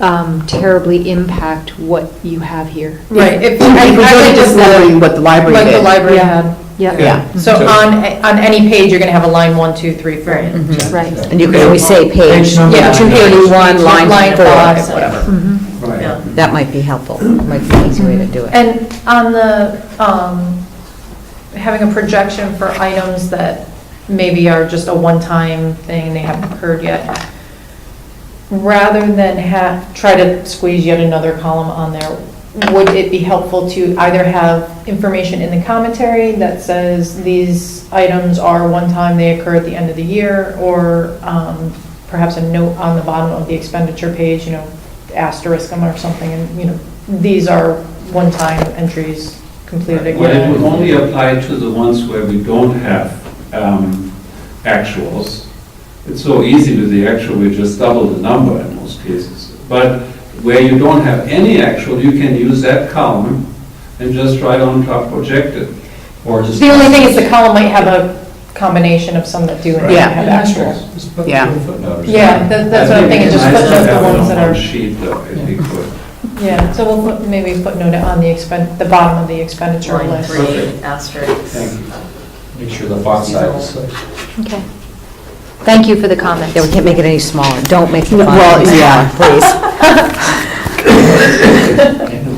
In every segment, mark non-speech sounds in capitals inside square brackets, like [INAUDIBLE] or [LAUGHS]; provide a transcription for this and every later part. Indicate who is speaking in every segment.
Speaker 1: um, terribly impact what you have here.
Speaker 2: Right. if-
Speaker 3: I
Speaker 2: I-
Speaker 3: think
Speaker 2: I think just
Speaker 3: just wondering what the library
Speaker 2: What the
Speaker 3: did.
Speaker 2: library had.
Speaker 1: Yeah,
Speaker 3: Yeah.
Speaker 2: So on, a- on any page, you're going to have a line one, two, three, four.
Speaker 4: Mm-hmm.
Speaker 1: right.
Speaker 3: And you
Speaker 5: Yeah.
Speaker 3: could
Speaker 6: We
Speaker 3: always
Speaker 6: say
Speaker 3: say,
Speaker 6: page,
Speaker 5: number.
Speaker 2: Yeah.
Speaker 6: two eighty-one, line
Speaker 2: five,
Speaker 6: four.
Speaker 2: Whatever.
Speaker 1: Mhm.
Speaker 2: Yeah.
Speaker 5: Right.
Speaker 6: That might be helpful, might be an easy way to do it.
Speaker 2: And on the, um, having a projection for items that maybe are just a one-time thing, they haven't occurred yet, rather than have, try to squeeze yet another column on there, would it be helpful to either have information in the commentary that says these items are one-time, they occur at the end of the year, or um, perhaps a note on the bottom of the expenditure page, you know, asterisk them or something, and, you know, these are one-time entries completed
Speaker 4: Well, it would
Speaker 2: again.
Speaker 4: only apply to the ones where we don't have um, actuals. It's so easy with the actual, we just double the number in most cases. But where you don't have any actual, you can use that column and just write on top projected. Or just.
Speaker 2: The only thing is the column might have a combination of some that do and
Speaker 3: Yeah.
Speaker 2: don't have actuals.
Speaker 5: Just put
Speaker 3: Yeah.
Speaker 5: it in footnotes.
Speaker 2: Yeah, that- that's what I'm thinking, just
Speaker 4: Nice to
Speaker 2: footnote
Speaker 4: have it
Speaker 2: the ones
Speaker 4: on
Speaker 2: that are.
Speaker 4: one Sheet though, if you could.
Speaker 2: Yeah, so we'll put- maybe footnote it on the expen, the bottom of the expenditure
Speaker 7: Line
Speaker 2: list.
Speaker 7: three, asterisk.
Speaker 4: Thank you.
Speaker 5: Make sure the font size is.
Speaker 1: Okay. Thank you for the comments.
Speaker 6: Yeah, we can't make it any smaller, don't make the font.
Speaker 2: [LAUGHS]
Speaker 3: well,
Speaker 6: any
Speaker 3: yeah.
Speaker 6: smaller, Please.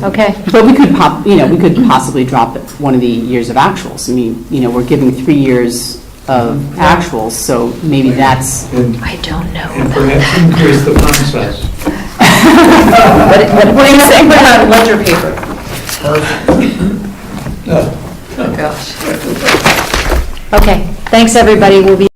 Speaker 1: Okay.
Speaker 3: But we could pop, you know, we could possibly drop it one of the years of actuals. I mean, you know, we're giving three years of actuals, so
Speaker 2: [LAUGHS]
Speaker 3: maybe that's,
Speaker 5: And
Speaker 1: I don't know. Oh,
Speaker 5: and perhaps increase the font size.
Speaker 3: what do you say?
Speaker 2: Put it on ledger paper.
Speaker 5: No.
Speaker 7: Oh, gosh.
Speaker 1: Okay, thanks, everybody. We'll be